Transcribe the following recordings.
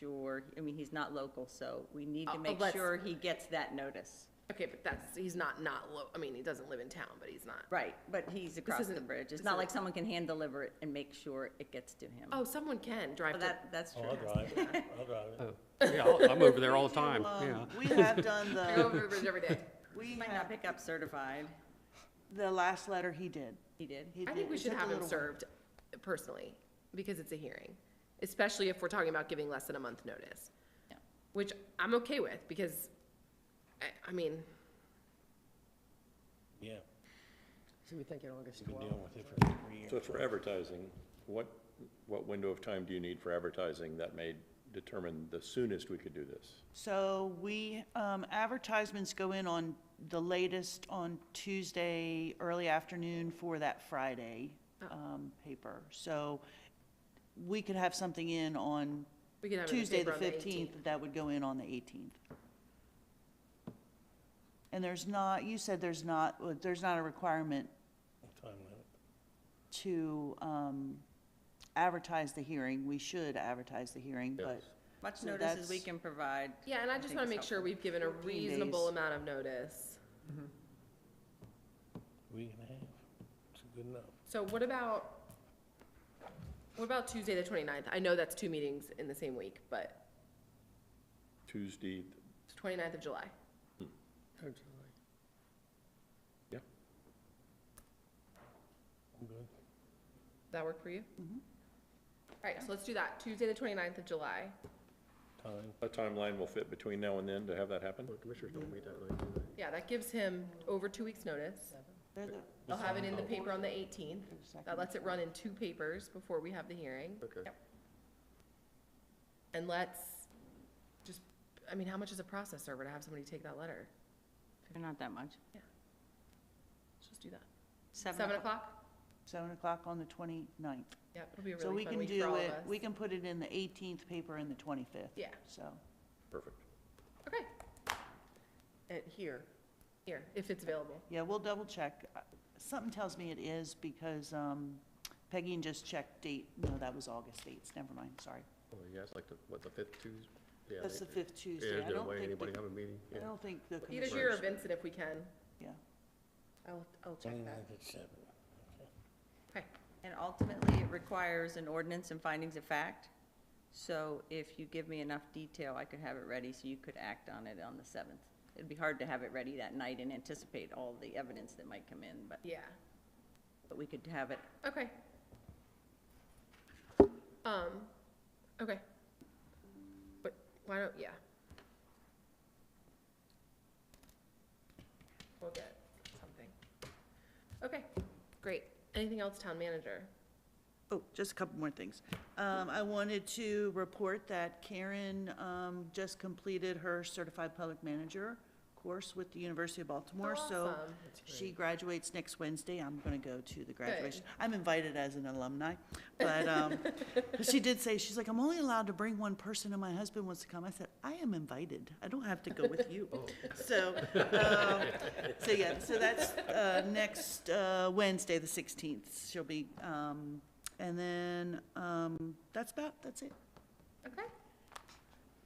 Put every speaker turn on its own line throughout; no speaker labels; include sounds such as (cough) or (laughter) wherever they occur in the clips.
sure, I mean, he's not local, so we need
Uh,
to make
let's-
sure he gets that notice.
Okay, but that's, he's not not lo, I mean, he doesn't live in town, but he's not.
Right, but he's across the
isn't-
bridge. It's
this
not like
isn't-
someone can hand deliver it and make sure it gets to him.
Oh, someone can drive
Well,
to,
That, that's
Oh,
true.
I'll drive it, I'll drive
(laughs)
it.
Oh, yeah, I'll- I'm over there all the time,
Um,
yeah.
We have done
I go
the,
over the bridge every day.
we
(laughs) Might not
have,
pick up certified.
the last letter he did.
He did.
He
I
did.
think we
It
should
took a
have him
little while.
served personally, because it's a hearing, especially if we're talking about giving less than a month notice.
Yeah.
Which I'm okay with, because, I, I mean,
Yeah,
should we think in August
we've been dealing with it for three years.
So for advertising, what, what window of time do you need for advertising that may determine the soonest we could do this?
So we, um, advertisements go in on the latest on Tuesday, early afternoon for that Friday,
Oh.
um, paper. So we could have something in on
We could have it in the
Tuesday, the
paper on the
fifteenth, that would go in on the eighteenth. And there's not, you said there's not, uh, there's not a requirement
Time limit.
to, um, advertise the hearing. We should advertise the hearing, but
Yes.
Much
So
notice as we
that's-
can provide.
Yeah, and I just
think
wanna
it's
make sure
helpful.
we've given a
14 days.
reasonable amount of notice.
Week and a half, it's good enough.
So what about, what about Tuesday, the 29th? I know that's two meetings in the same week, but
Tuesday,
it's 29th of July.
yeah,
I'm good.
That work for you? Mm-hmm. All right, so let's do that, Tuesday, the 29th of July.
Time,
what timeline will fit between now and then to have that happen? Commissioners don't meet that late,
Yeah, that gives him over two weeks' notice.
they're the,
They'll have it in the paper on the 18th. That
Second.
lets it run in two papers before we have the hearing.
Okay.
Yep. And let's just, I mean, how much is a process server to have somebody take that letter?
Not that much.
Let's just do that. 7 o'clock?
seven o'clock on the twenty-ninth.
Yep, it'll be a
So
really
we
fun
can
week for all
do
of
it,
us.
we can put it in the eighteenth paper and the twenty-fifth.
Yeah,
So,
perfect.
okay,
at here.
here, if it's available.
Yeah, we'll double check. Uh, Something tells me it is because um, Peggy just checked date. No, that was August dates. Never mind, sorry.
Oh, yeah, it's like the, what, the fifth Tuesday?
That's the fifth Tuesday.
Is
I
there a
don't
way
think,
anybody
the-
have a meeting?
I
Yeah.
don't think the
Either
commission,
here or Vincent if we can.
yeah.
I'll, I'll check that.
twenty-ninth at seven.
Okay,
And ultimately, it requires an ordinance and findings of fact. So if you give me enough detail, I could have it ready so you could act on it on the 7th. It'd be hard to have it ready that night and anticipate all the evidence that might come in, but,
yeah,
but we could have it.
okay. Um, okay. But why don't, yeah. We'll get something. Okay, great. Anything else, town manager?
Oh, just a couple more things. Um, I wanted to report that Karen, um, just completed her certified public manager course with the University of Baltimore, so
Awesome.
she graduates next Wednesday. I'm gonna go to the graduation. I'm invited as an alumni, but, um, but she did say, she's like, I'm only allowed to bring one person and my husband wants to come. I said, I am invited. I don't have to go with you. So, um, so yeah, so that's, uh, next, uh, Wednesday, the sixteenth, she'll be, um, and then, um, that's about, that's it.
Okay.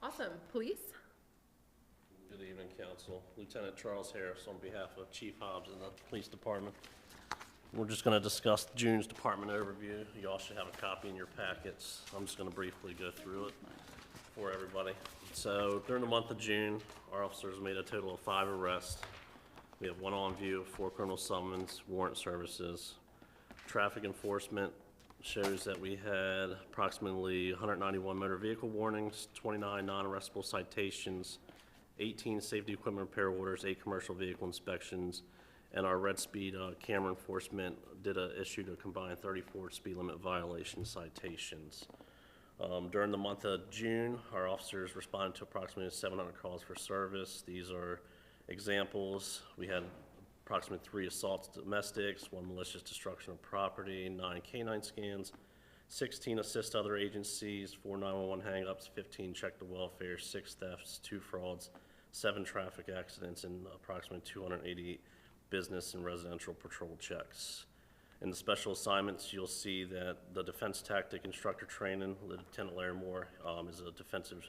Awesome. Police?
Good evening, Council. Lieutenant Charles Harris on behalf of Chief Hobbs and the Police Department. We're just going to discuss June's department overview. You all should have a copy in your packets. I'm just going to briefly go through it for everybody. So during the month of June, our officers made a total of five arrests. We have one on view, four criminal summons, warrant services. Traffic enforcement shows that we had approximately 191 motor vehicle warnings, 29 non-arrestable citations, 18 safety equipment repair orders, eight commercial vehicle inspections, and our red speed uh, camera enforcement did a, issued a combined 34 speed limit violation citations. Um, During the month of June, our officers responded to approximately 700 calls for service. These are examples. We had approximately three assaults domestics, one malicious destruction of property, nine canine scans, 16 assist other agencies, four 911 hangups, 15 check the welfare, six thefts, two frauds, seven traffic accidents, and approximately 288 business and residential patrol checks. In the special assignments, you'll see that the defense tactic instructor training, Lieutenant Larimore, um, is a defensive